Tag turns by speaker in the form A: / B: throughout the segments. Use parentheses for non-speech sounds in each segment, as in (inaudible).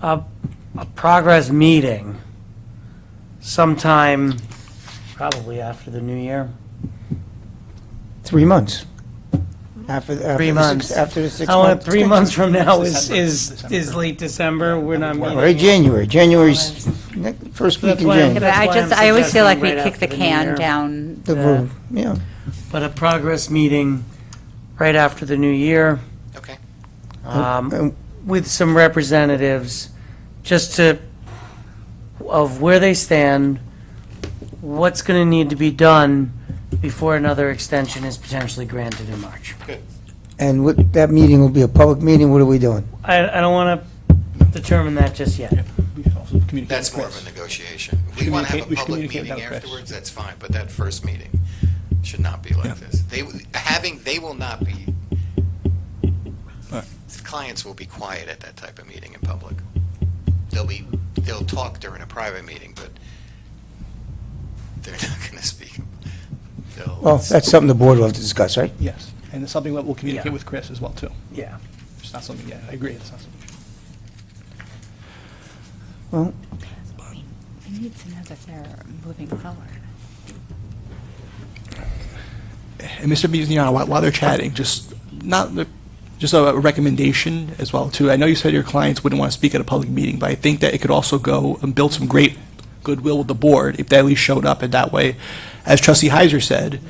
A: a, a progress meeting sometime, probably after the new year.
B: Three months. After, after
A: Three
B: the six-
A: months.
B: After the six
A: I want,
B: months.
A: three months from now is,
C: December.
A: is, is late December, we're not meeting.
B: Or January, January's, ne- first
A: That's
B: week in
A: why I
D: Yeah,
A: get
B: January.
D: but I
A: That's why
D: just,
A: I'm
D: I always feel like we
A: suggesting right
D: kick the
A: after the new year.
D: can down.
B: The
D: the-
B: vote, yeah.
A: But a progress meeting right after the new year.
E: Okay.
A: Um,
B: Uh,
A: with some representatives, just to, of where they stand, what's going to need to be done before another extension is potentially granted in March.
B: And what, that meeting will be a public meeting, what are we doing?
A: I, I don't want to determine that just yet.
E: That's more of a negotiation. If we want to have
C: communicate-
E: a
C: we
E: public
C: communicate
E: meeting
C: without press.
E: afterwards, that's fine, but that first meeting should not be like this. They, w- having, they will not be,
C: Right.
E: clients will be quiet at that type of meeting in public. They'll be, they'll talk during a private meeting, but they're (laughs) not going to speak. They'll-
B: Well, that's something the board will have to discuss, right?
C: Yes, and it's something that we'll
A: Yeah.
C: communicate with Chris as well, too.
A: Yeah.
C: It's not something, yeah, I agree, it's not something.
B: Well,
D: We need to know that they're moving forward.
C: And Mr. Biziano, while, while they're chatting, just not, the- just a recommendation as well too. I know you said your clients wouldn't want to speak at a public meeting, but I think that it could also go and build some great goodwill with the board if they at least showed up in that way. As trustee Heiser said,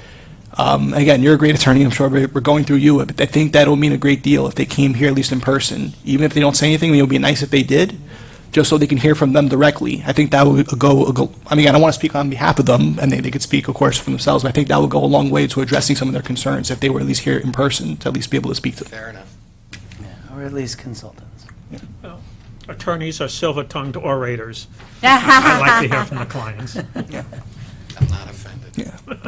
C: um, again, you're a great attorney, I'm sure we're we're going through you, but I think that'll mean a great deal if they came here at least in person. Even if they don't say anything, it would be nice if they did, just so they can hear from them directly. I think that would go, go- I mean, I don't want to speak on behalf of them, and they, they could speak, of course, for themselves, but I think that would go a long way to addressing some of their concerns if they were at least here in person, to at least be able to speak to them.
E: Fair enough.
A: Or at least consultants.
F: attorneys are silver-tongued orators. I like to hear from the clients.
E: I'm not offended.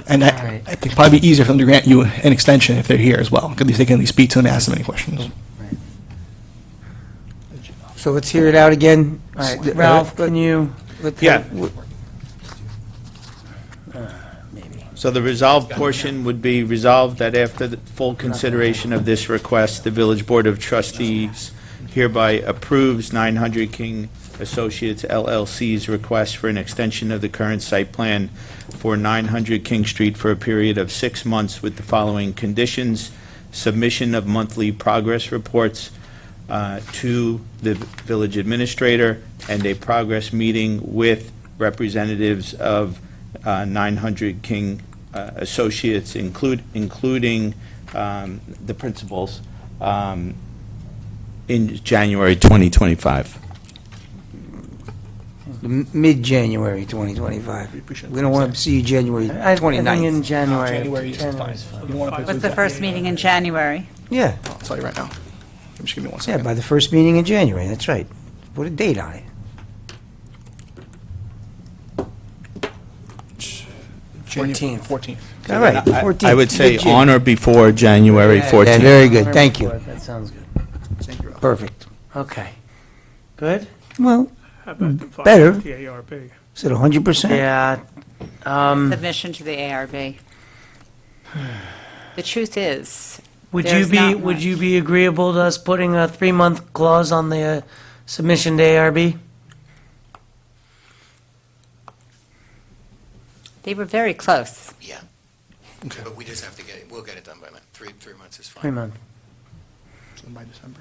C: And
A: All
C: I,
A: right.
C: I think probably be easier for them to grant you an extension if they're here as well, 'cause at least they can at least speak to them and ask them any questions.
B: so let's hear it out again.
A: All right, Ralph,
B: uh,
A: can you?
G: Yeah.
A: Maybe.
G: So the resolved portion would be resolved that after the full consideration of this request, the Village Board of Trustees hereby approves 900 King Associates LLC's request for an extension of the current site plan for 900 King Street for a period of six months with the following conditions: submission of monthly progress reports uh, to the village administrator and a progress meeting with representatives of uh, 900 King uh, Associates, include, including um, the principals, um, in January 2025.
B: M- Mid-January 2025.
C: We appreciate
B: We don't want to see you January
A: I I think in
B: 29th.
A: January.
C: Oh, January is fine.
A: January's
C: You don't wanna put-
D: What's the first meeting in January?
B: Yeah,
C: I'll tell you right now. Just give me one
B: yeah,
C: second.
B: by the first meeting in January, that's right. Put a date on it.
C: January
A: 14th.
C: 14th.
B: All right,
G: I-
B: 14th.
G: I would say
B: mid-Jan-
G: on or before January
A: Yeah,
B: Yeah,
G: 14th.
B: very good, thank you.
A: That sounds good.
C: Thank you, Ralph.
B: Perfect.
A: Okay. Good?
B: Well,
F: How about the file
B: Better.
F: with The ARB.
B: is it 100%?
A: Yeah. Um,
D: Submission to the ARB. The truth is,
A: Would you
D: There's
A: be,
D: not
A: would
D: much.
A: you be agreeable to us putting a three-month clause on the uh, submission to ARB?
D: they were very close.
E: Yeah. But we just have to get, it. we'll get it done by then. Three, three months is fine.
A: Three months.
C: By December.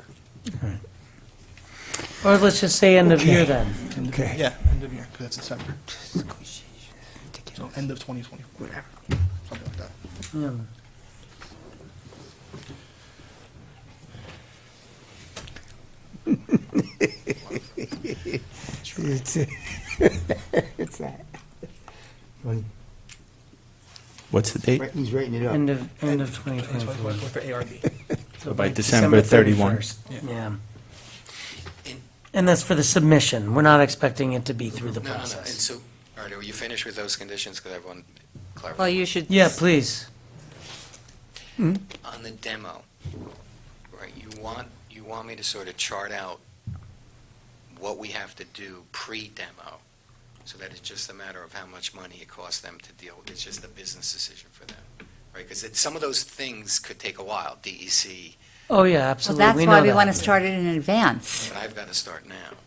A: Or let's just say end of year then.
C: End of-
B: Okay.
C: Yeah, end of year, because that's December. So end of 2024. Whatever. Something like that.
B: It's (laughs) it's that. Well,
G: What's the date?
B: He's writing it
A: End of, end of 2024.
C: 2024 for ARB.
A: So
G: By December 31.
A: 31st, Yeah. And that's for the submission. We're not expecting it to be through the
E: No, no, no. And
A: process.
E: so, all right, are you finished with those conditions? Because everyone clarified.
D: Well, you should.
A: Yeah, please.
E: on the demo, right, you want, you want me to sort of chart out what we have to do pre-demo, so that it's just a matter of how much money it costs them to deal with, it's just a business decision for them, right? Because some of those things could take a while, E DEC,
A: Oh, yeah,
D: Well,
A: absolutely.
D: that's
A: know
D: why we
A: that.
D: want to start it in advance.
E: but I've got to start now.